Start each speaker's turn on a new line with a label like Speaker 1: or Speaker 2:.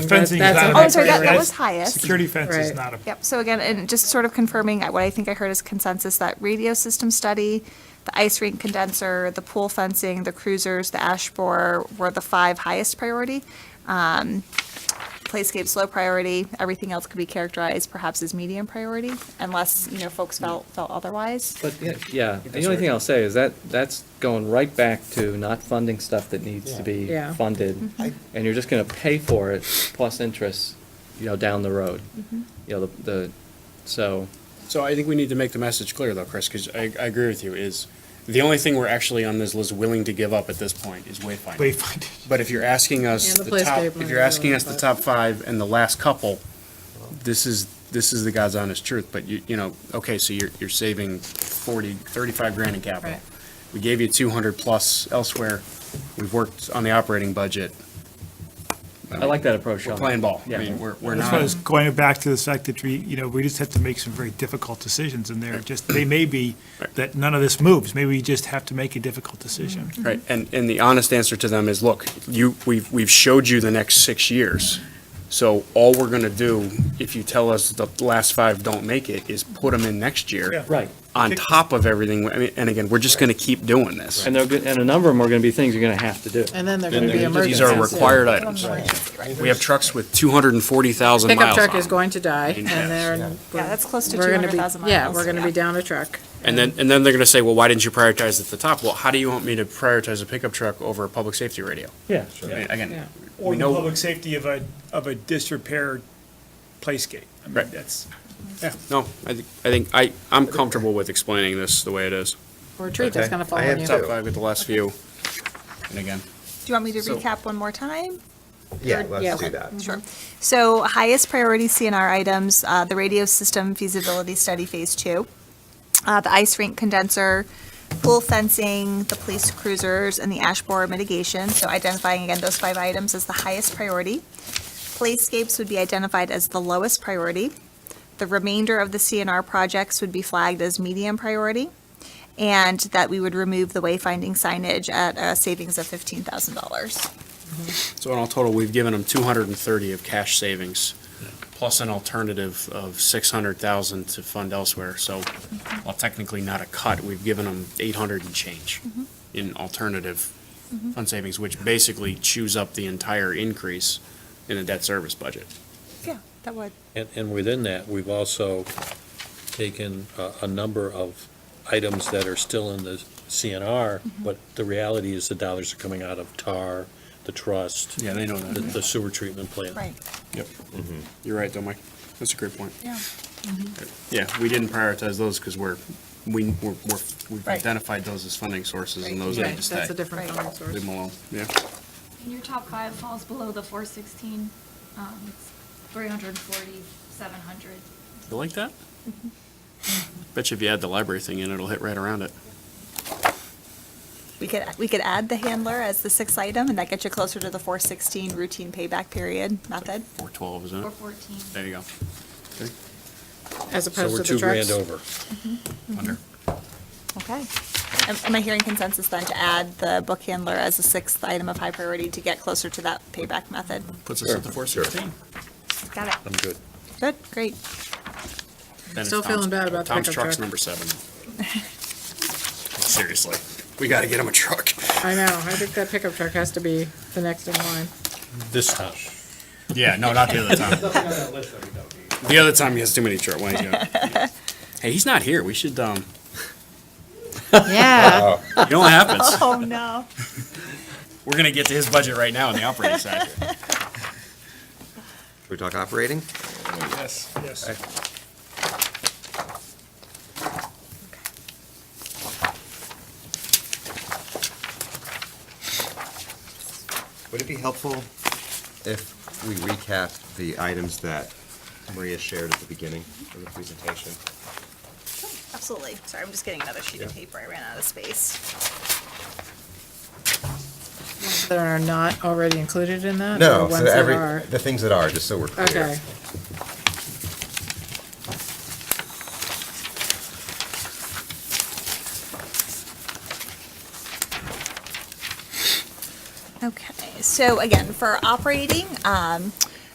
Speaker 1: The fencing is
Speaker 2: that's
Speaker 1: not.
Speaker 2: on
Speaker 1: an
Speaker 2: the
Speaker 3: Oh, I'm sorry, that, that
Speaker 1: upgrade.
Speaker 3: was highest.
Speaker 1: Security fence is
Speaker 2: Right.
Speaker 1: not a,
Speaker 3: Yep, so again, and just sort of confirming what I think I heard as consensus, that radio system study, the ice rink condenser, the pool fencing, the cruisers, the ash borer were the five highest priority. Um, Playscape's low priority, everything else could be characterized perhaps as medium priority, unless, you know, folks felt, felt otherwise.
Speaker 4: But, yeah, yeah, the only thing I'll say is that, that's going right back to not funding stuff that needs to be
Speaker 2: Yeah. Yeah.
Speaker 4: funded.
Speaker 5: I-
Speaker 4: And you're just gonna pay for it plus interest, you know, down the road. You know, the, the, so,
Speaker 6: So I think we need to make the message clear though, Chris, because I, I agree with you, is the only thing we're actually on this list willing to give up at this point is wayfinding.
Speaker 1: wayfinding.
Speaker 6: But if you're asking us
Speaker 2: And the
Speaker 6: the top,
Speaker 2: playscape
Speaker 6: if
Speaker 2: might
Speaker 6: you're
Speaker 2: be
Speaker 6: asking
Speaker 2: one,
Speaker 6: us the
Speaker 2: but-
Speaker 6: top five and the last couple, this is, this is the God's honest truth, but you, you know, okay, so you're, you're saving forty, thirty-five grand in capital.
Speaker 2: Right.
Speaker 6: We gave you two hundred plus elsewhere. We've worked on the operating budget.
Speaker 4: I like that approach, Sean.
Speaker 6: We're playing ball. I
Speaker 4: Yeah.
Speaker 6: mean, we're, we're
Speaker 1: That's why I
Speaker 6: not.
Speaker 1: was going back to the fact that we, you know, we just have to make some very difficult decisions and they're just, they may be that none of this moves. Maybe we just have to make a difficult decision.
Speaker 6: Right, and, and the honest answer to them is, look, you, we've, we've showed you the next six years. So all we're gonna do, if you tell us the last five don't make it, is put them in next year.
Speaker 4: Right.
Speaker 6: On top of everything, I mean, and again, we're just gonna keep doing this.
Speaker 4: And they're, good- and a number of them are gonna be things you're gonna have to do.
Speaker 2: And then there's going
Speaker 6: And
Speaker 2: to be
Speaker 6: they're-
Speaker 2: emergencies.
Speaker 6: These are required
Speaker 2: too.
Speaker 6: items. We have trucks with two hundred and forty thousand
Speaker 2: Pickup
Speaker 6: miles
Speaker 2: truck is
Speaker 6: on. 'em.
Speaker 2: going to die, and
Speaker 6: Yeah.
Speaker 2: they're.
Speaker 3: Yeah, that's close to
Speaker 2: we're gonna be-
Speaker 3: 200,000 miles.
Speaker 2: Yeah, we're going to
Speaker 3: Yeah.
Speaker 2: be down a truck.
Speaker 6: And then, and then they're gonna say, well, why didn't you prioritize at the top? Well, how do you want me to prioritize a pickup truck over a public safety radio?
Speaker 4: Yeah.
Speaker 6: I mean,
Speaker 2: Yeah.
Speaker 6: Again,
Speaker 7: Or
Speaker 6: we
Speaker 7: the
Speaker 6: know-
Speaker 7: public safety of a, of a disrepair playscape. I mean,
Speaker 6: Right.
Speaker 7: that's,
Speaker 6: no, I think, I think, I, I'm comfortable with explaining this the way it is.
Speaker 2: Or a tree that's
Speaker 6: Okay.
Speaker 2: going to fall
Speaker 6: I
Speaker 2: on
Speaker 6: have
Speaker 2: you.
Speaker 6: top five at the last few. And again,
Speaker 3: Do you want me to
Speaker 5: So-
Speaker 3: recap one more time?
Speaker 5: Yeah,
Speaker 2: yeah,
Speaker 5: let's do
Speaker 2: okay.
Speaker 5: that.
Speaker 3: Sure. Mm-hmm. So highest priority CNR items, uh, the radio system feasibility study phase two, uh, the ice rink condenser, pool fencing, the police cruisers, and the ash borer mitigation. So identifying again those five items as the highest priority. Playscapes would be identified as the lowest priority. The remainder of the CNR projects would be flagged as medium priority. And that we would remove the wayfinding signage at a savings of fifteen thousand dollars.
Speaker 6: so in all total, we've given them two hundred and thirty of cash savings, plus an alternative of six hundred thousand to fund elsewhere, so, while technically not a cut, we've given them eight hundred and change in alternative fund savings, which basically chews up the entire increase in the debt service budget.
Speaker 3: Yeah, that would.
Speaker 8: And, and within that, we've also taken a, a number of items that are still in the CNR,
Speaker 2: Mm-hmm.
Speaker 8: but the reality is the dollars are coming out of TAR, the trust.
Speaker 6: Yeah, they know that.
Speaker 8: the- The sewer treatment plant.
Speaker 3: Right,
Speaker 6: Yep. You're right, though, Mike. That's a great point.
Speaker 3: yeah.
Speaker 6: Yeah, we didn't prioritize those because we're, we, we're, we're- we've
Speaker 3: Right.
Speaker 6: identified those as funding sources and
Speaker 3: Right.
Speaker 6: those
Speaker 2: Right,
Speaker 6: need to stay.
Speaker 2: That's a different
Speaker 3: Right.
Speaker 2: funding
Speaker 6: Leave
Speaker 2: source.
Speaker 6: them alone, yeah.
Speaker 9: And your top five falls below the four sixteen, um, it's three hundred and forty, seven hundred.
Speaker 6: You like that?
Speaker 2: Mm-hmm.
Speaker 6: Bet you if you add the library thing in, it'll hit right around it.
Speaker 3: We could, we could add the handler as the sixth item, and that gets you closer to the 416 routine payback period method.
Speaker 6: Four twelve, isn't
Speaker 9: Four
Speaker 6: it?
Speaker 9: fourteen.
Speaker 6: There you go.
Speaker 2: As
Speaker 8: So we're
Speaker 2: opposed to
Speaker 8: two
Speaker 2: the
Speaker 8: grand
Speaker 2: trucks.
Speaker 8: over.
Speaker 6: Under.
Speaker 3: Okay. Am- Am I hearing consensus then to add the book handler as a sixth item of high priority to get closer to that payback method?
Speaker 6: Puts us at the four sixteen.
Speaker 3: Got it.
Speaker 8: I'm good.
Speaker 3: Good, great.
Speaker 2: Still feeling bad about the
Speaker 6: Tom's
Speaker 2: pickup
Speaker 6: truck's
Speaker 2: truck.
Speaker 6: number seven. Seriously, we gotta get him a truck.
Speaker 2: I know, I think that pickup truck has to be the next in line.
Speaker 8: This time.
Speaker 6: Yeah, no, not the other time. The other time he has too many truck, why don't you- Hey, he's not here. We should, um,
Speaker 2: Yeah.
Speaker 6: you know what happens?
Speaker 3: Oh, no.
Speaker 6: We're gonna get to his budget right now on the operating side.
Speaker 5: Should we talk operating?
Speaker 7: yes, yes.
Speaker 5: Would it be helpful if we recapped the items that Maria shared at the beginning of the presentation?
Speaker 3: Absolutely. Sorry, I'm just getting another sheet of
Speaker 5: Yeah.
Speaker 3: paper. I ran out of space.
Speaker 2: That are not already included in that? or
Speaker 5: No, so
Speaker 2: Uh, ones that
Speaker 5: every,
Speaker 2: are?
Speaker 5: the things that are, just so we're clear.
Speaker 2: Okay.
Speaker 3: Okay, so again, for operating, um,